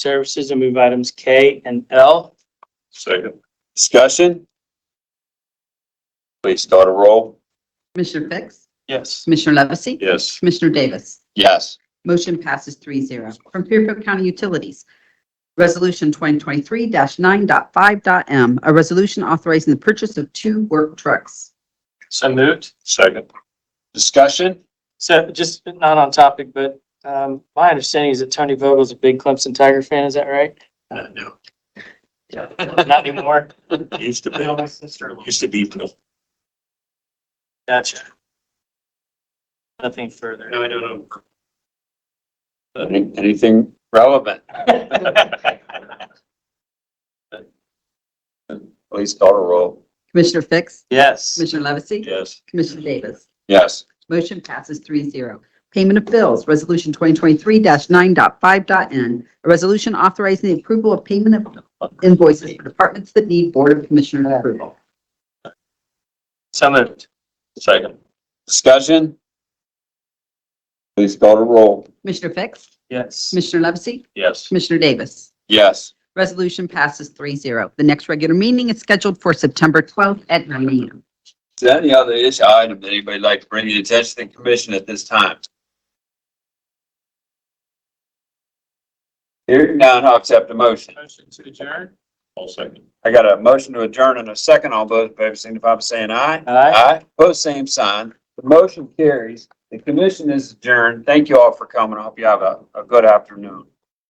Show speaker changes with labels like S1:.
S1: Services. I move items K and L.
S2: Second.
S3: Discussion? Please start a roll.
S4: Commissioner Fix?
S1: Yes.
S4: Commissioner Levesey?
S2: Yes.
S4: Commissioner Davis?
S3: Yes.
S4: Motion passes 3-0 From Fairfield County Utilities, Resolution 2023-9.5.m, a resolution authorizing the purchase of two work trucks.
S1: So moved.
S2: Second.
S3: Discussion?
S1: So just not on topic, but um, my understanding is that Tony Vogel's a big Clemson Tiger fan. Is that right?
S2: Uh, No.
S1: Not anymore.
S2: Used to be, used to be. No,
S1: Gotcha. Nothing further.
S2: I don't
S3: Any- Anything relevant? Please start a roll.
S4: Commissioner Fix?
S1: Yes.
S4: Commissioner Levesey?
S2: Yes.
S4: Commissioner Davis?
S3: Yes.
S4: Motion passes 3-0. Payment of bills, Resolution 2023-9.5.n, a resolution authorizing the approval of payment of invoices for departments that need Board of Commissioners approval.
S1: So moved.
S2: Second.
S3: Discussion? Please start a roll.
S4: Commissioner Fix?
S1: Yes.
S4: Commissioner Levesey?
S2: Yes.
S4: Commissioner Davis?
S3: Yes.
S4: Resolution passes 3-0. The next regular meeting is scheduled for September 12th at 9 a.m.
S3: Is there any other issue item that anybody would like to bring to the attention of the commission at this time? Hearing none, I'll accept the motion.
S2: Motion to adjourn. All second.
S3: I got a motion to adjourn and a second. All those in favor signify by saying aye.
S1: Aye.
S3: Aye. Post same sign. The motion carries. The commission is adjourned. Thank you all for coming. I hope you have a, a good afternoon.